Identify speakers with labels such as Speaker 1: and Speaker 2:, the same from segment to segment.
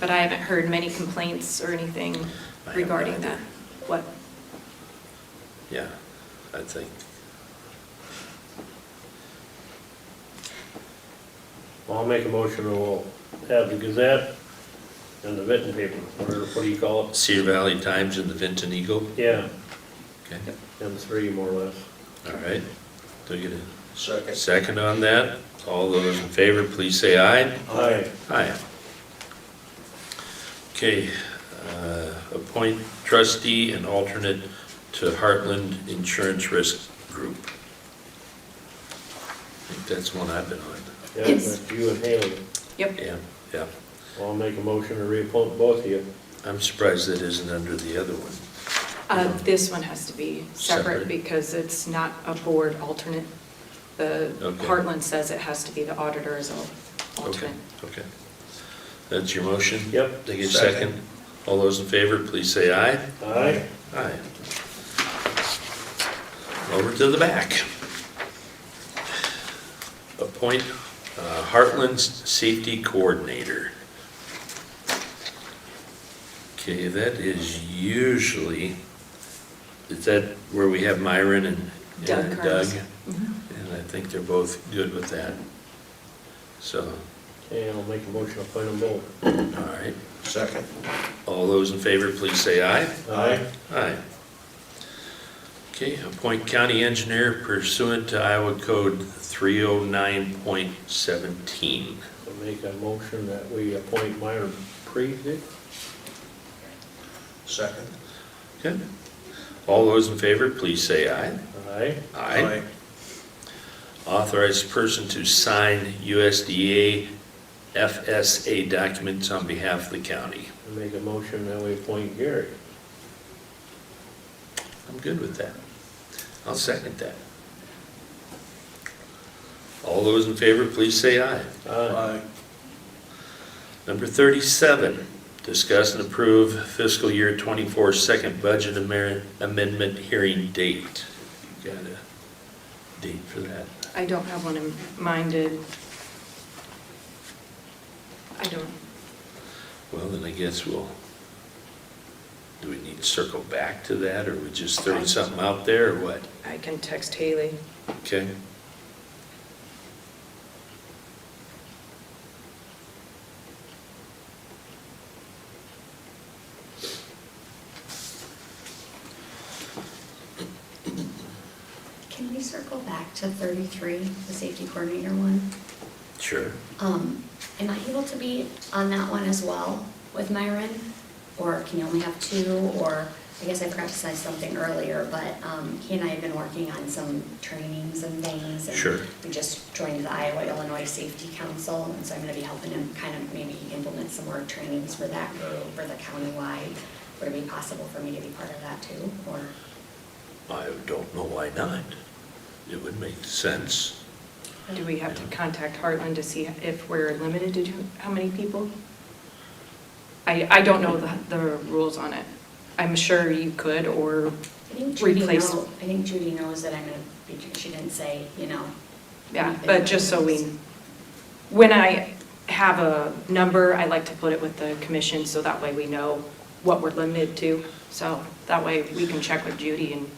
Speaker 1: but I haven't heard many complaints or anything
Speaker 2: haven't
Speaker 1: regarding
Speaker 2: either.
Speaker 1: that. What?
Speaker 2: Yeah, I think.
Speaker 3: Well, I'll make a motion and we'll have the Gazette and the Vinton paper, or what do you call it?
Speaker 2: Cedar Valley Times and the Vinton Eagle,
Speaker 3: Yeah,
Speaker 2: okay,
Speaker 3: and three more or less.
Speaker 2: all right. Do we get a
Speaker 4: Second.
Speaker 2: second on that? All those in favor, please say aye.
Speaker 3: Aye.
Speaker 2: Aye. Okay, uh, appoint trustee and alternate to Heartland Insurance Risk Group. I think that's one I've been on.
Speaker 3: Yeah,
Speaker 1: Yes.
Speaker 3: that's you and Haley.
Speaker 1: Yep.
Speaker 2: Yeah, yeah.
Speaker 3: Well, I'll make a motion to reappoint both of you.
Speaker 2: I'm surprised that isn't under the other one.
Speaker 1: Uh, This one has to be
Speaker 2: Separate.
Speaker 1: separate because it's not a board alternate. The
Speaker 2: Okay.
Speaker 1: Heartland says it has to be the auditor as an
Speaker 2: Okay,
Speaker 1: alternate.
Speaker 2: okay. That's your motion?
Speaker 3: Yep.
Speaker 2: Take a
Speaker 4: Second.
Speaker 2: second. All those in favor, please say aye.
Speaker 3: Aye.
Speaker 2: Aye. Over to the back. Appoint uh, Heartland's Safety Coordinator. Okay, that is usually, is that where we have Myron and and
Speaker 1: Doug
Speaker 2: Doug?
Speaker 1: Carnes. Mhm.
Speaker 2: And I think they're both good with that. So,
Speaker 3: Okay, I'll make a motion to appoint them both.
Speaker 2: all right.
Speaker 4: Second.
Speaker 2: All those in favor, please say aye.
Speaker 3: Aye.
Speaker 2: Aye. Okay, appoint county engineer pursuant to Iowa Code 309.17.
Speaker 3: I'll make a motion that we appoint Myron Priestley.
Speaker 4: Second.
Speaker 2: Okay. All those in favor, please say aye.
Speaker 3: Aye.
Speaker 2: Authorized person to sign USDA FSA documents on behalf of the county.
Speaker 3: I'll make a motion that we appoint Gary.
Speaker 2: I'm good with that. I'll second that. All those in favor, please say aye.
Speaker 3: Aye.
Speaker 2: Number 37, discuss and approve fiscal year 24 second budget amer- amendment hearing date. You got a date for that?
Speaker 1: I don't have one in mind. Did- I don't,
Speaker 2: Well, then I guess we'll, do we need to circle back to that, or we just throw something out there, or what?
Speaker 1: I can text Haley.
Speaker 2: Okay?
Speaker 5: Can we circle back to 33, the safety coordinator one?
Speaker 2: Sure.
Speaker 5: Um, Am I able to be on that one as well with Myron? Or can you only have two? Or, I guess I forgot to say something earlier, but um, he and I have been working on some trainings and things. and
Speaker 2: Sure.
Speaker 5: We just joined the Iowa Illinois Safety Council, and so I'm going to be helping him kind of maybe implement some more trainings for that group, for the countywide. Would it be possible for me to be part of that too? Or,
Speaker 2: I don't know why not. It would make sense.
Speaker 1: Do we have to contact Heartland to see if we're limited to who- how many people? I, I don't know the, the rules on it. I'm sure you could, or,
Speaker 5: I think Judy
Speaker 1: Replace-
Speaker 5: knows, I think Judy knows that I'm gonna be, she didn't say, you know.
Speaker 1: yeah,
Speaker 5: anything.
Speaker 1: but just so we, when I have a number, I like to put it with the commission, so that way we know what we're limited to. So that way we can check with Judy and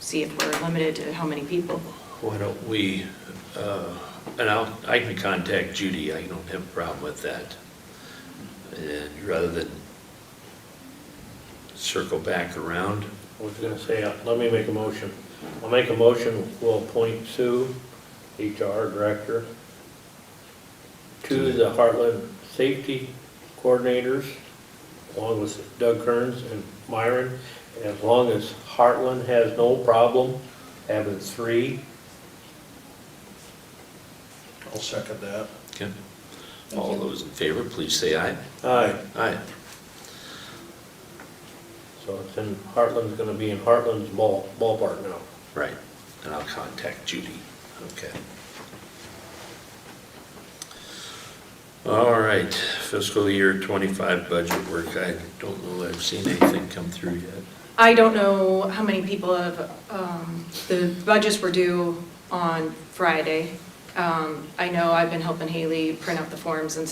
Speaker 1: see if we're limited to how many people.
Speaker 2: Why don't we, uh, and I'll, I can contact Judy, I don't have a problem with that. And rather than circle back around,
Speaker 3: I was gonna say, uh, let me make a motion. I'll make a motion, we'll appoint Sue, HR Director, to the Heartland Safety Coordinators, along with Doug Kearns and Myron. And as long as Heartland has no problem having three,
Speaker 4: I'll second that.
Speaker 2: okay? All those in favor, please say aye.
Speaker 3: aye.
Speaker 2: Aye.
Speaker 3: So it's in, Heartland's gonna be in Heartland's ball, ballpark now.
Speaker 2: Right, and I'll contact Judy, okay. All right, fiscal year 25 budget work, I don't know that I've seen anything come through yet.
Speaker 1: I don't know how many people have, um, the budgets were due on Friday. Um, I know I've been helping Haley print out the forms and